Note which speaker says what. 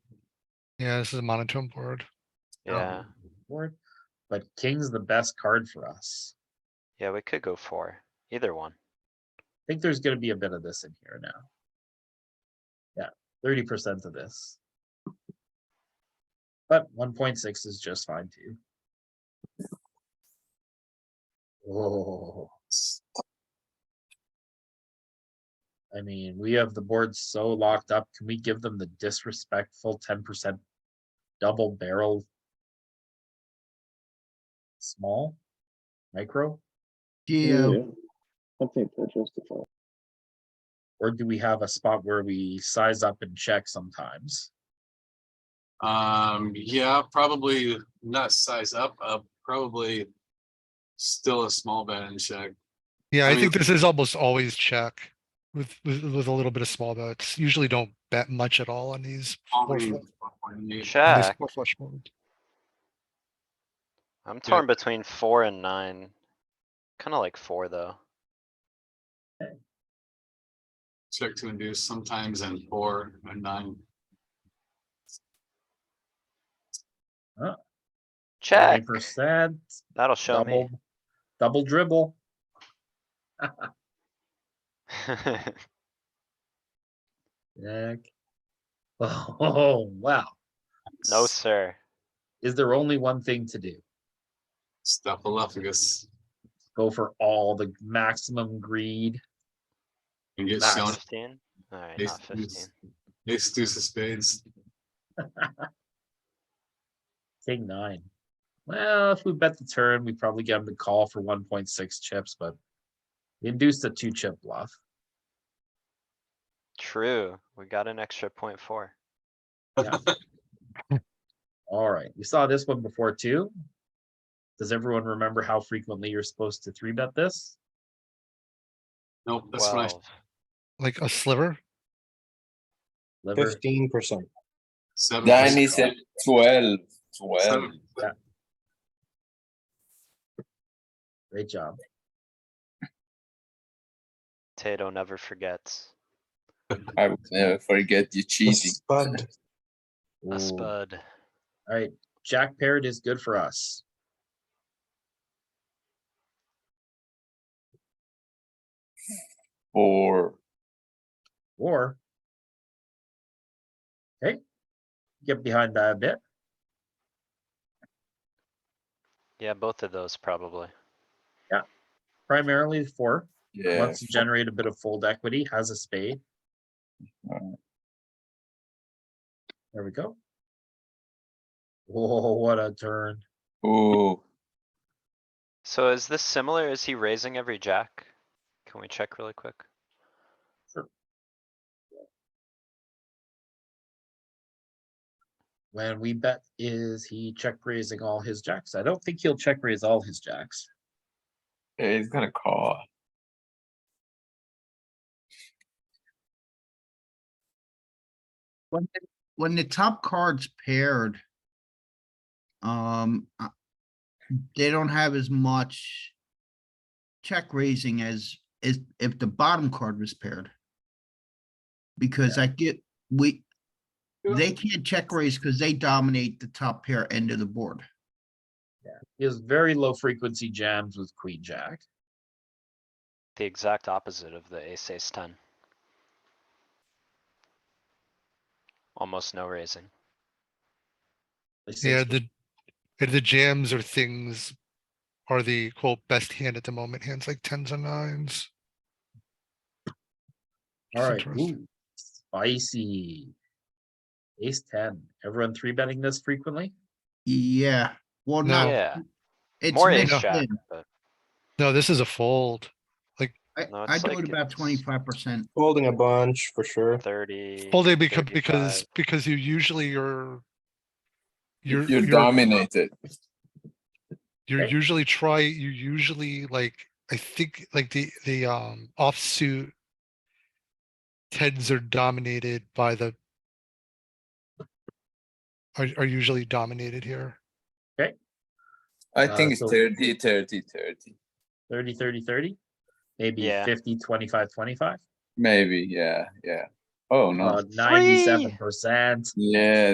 Speaker 1: Yeah, this is a monotone board.
Speaker 2: Um,
Speaker 3: Yeah,
Speaker 2: Board, but king's the best card for us.
Speaker 3: yeah, we could go for either one.
Speaker 2: I think there's gonna be a bit of this in here now. Yeah, thirty percent of this. But one point six is just fine too. Oh. I mean, we have the board so locked up. Can we give them the disrespectful ten percent double barrel? Small, micro?
Speaker 1: Yeah,
Speaker 4: Something to justify.
Speaker 2: Or do we have a spot where we size up and check sometimes?
Speaker 5: Um, yeah, probably not size up, uh, probably still a small bet and check.
Speaker 1: yeah, I
Speaker 5: I mean-
Speaker 1: think this is almost always check with, with, with a little bit of small bets. Usually don't bet much at all on these. four
Speaker 5: Probably
Speaker 1: fl- on these
Speaker 3: Check,
Speaker 1: four flush boards.
Speaker 3: I'm torn between four and nine. Kinda like four, though.
Speaker 5: Check to induce sometimes and four and nine.
Speaker 3: Check,
Speaker 2: Percent,
Speaker 3: that'll show me.
Speaker 2: double, double dribble. Check. Oh, wow.
Speaker 3: No, sir.
Speaker 2: Is there only one thing to do?
Speaker 5: Stuffaluffagus
Speaker 2: Go for all the maximum greed?
Speaker 5: and get
Speaker 2: Nice.
Speaker 5: shown.
Speaker 3: Fifteen? Alright,
Speaker 5: Ace
Speaker 3: not fifteen.
Speaker 5: Ace deuce of spades.
Speaker 2: King nine. Well, if we bet the turn, we probably get him to call for one point six chips, but we induced a two chip bluff.
Speaker 3: True, we got an extra point four.
Speaker 2: Alright, we saw this one before too. Does everyone remember how frequently you're supposed to three bet this?
Speaker 5: Nope, that's what I,
Speaker 3: Twelve.
Speaker 1: Like a sliver.
Speaker 2: Liver,
Speaker 6: Fifteen percent.
Speaker 5: seven.
Speaker 7: Dime
Speaker 5: percent.
Speaker 7: is at 12. 12.
Speaker 5: Seven-
Speaker 2: great job.
Speaker 3: Tato never forgets.
Speaker 7: I would never forget you cheating.
Speaker 6: Spud.
Speaker 3: A
Speaker 2: Ooh.
Speaker 3: spud.
Speaker 2: Alright, Jack Parrot is good for us.
Speaker 7: Or
Speaker 2: Or. Okay. Get behind that a bit.
Speaker 3: Yeah, both of those probably.
Speaker 2: Primarily four,
Speaker 7: yeah.
Speaker 2: wants to generate a bit of fold equity, has a spade.
Speaker 7: Alright.
Speaker 2: There we go. Whoa, what a turn.
Speaker 7: Oh,
Speaker 3: So is this similar? Is he raising every jack? Can we check really quick?
Speaker 2: When we bet is he check raising all his jacks? I don't think he'll check raise all his jacks.
Speaker 7: yeah, he's gonna call.
Speaker 8: When, the- when the top card's paired. Um, uh, they don't have as much. Check raising as, as if the bottom card was paired. Because I get, we, they can't check raise because they dominate the top pair end of the board.
Speaker 2: He has very low frequency jams with queen jack.
Speaker 3: The exact opposite of the ace ace ten. Almost no raising.
Speaker 2: I see
Speaker 1: Yeah,
Speaker 2: it's
Speaker 1: the, and the jams or things are the quote best hand at the moment, hands like tens and nines. Which is
Speaker 2: Alright,
Speaker 1: interesting.
Speaker 2: ooh, spicy. Ace ten, everyone three betting this frequently?
Speaker 8: Yeah, well,
Speaker 1: No.
Speaker 8: not,
Speaker 3: Yeah,
Speaker 8: it's
Speaker 3: more ace
Speaker 8: mixed
Speaker 3: jack,
Speaker 8: in.
Speaker 3: but
Speaker 1: No, this is a fold.
Speaker 8: I,
Speaker 3: No,
Speaker 8: I
Speaker 3: it's
Speaker 8: do
Speaker 3: like
Speaker 8: it about
Speaker 3: it's-
Speaker 8: twenty-five percent.
Speaker 6: Folding a bunch for sure.
Speaker 3: thirty.
Speaker 1: Folded because, because,
Speaker 3: 35.
Speaker 1: because you usually you're.
Speaker 7: You're,
Speaker 1: You're, you're,
Speaker 7: dominated.
Speaker 1: you're
Speaker 2: Okay.
Speaker 1: usually try, you usually like, I think like the, the, um, offsuit. Tens are dominated by the. Are, are usually dominated here.
Speaker 7: I
Speaker 2: Uh,
Speaker 7: think it's
Speaker 2: so-
Speaker 7: 30, 30, 30.
Speaker 2: Thirty, thirty, thirty? Maybe
Speaker 3: Yeah.
Speaker 2: 50, 25, 25?
Speaker 7: Maybe, yeah, yeah. Oh no.
Speaker 2: Uh, Ninety-seven percent.
Speaker 7: Yeah,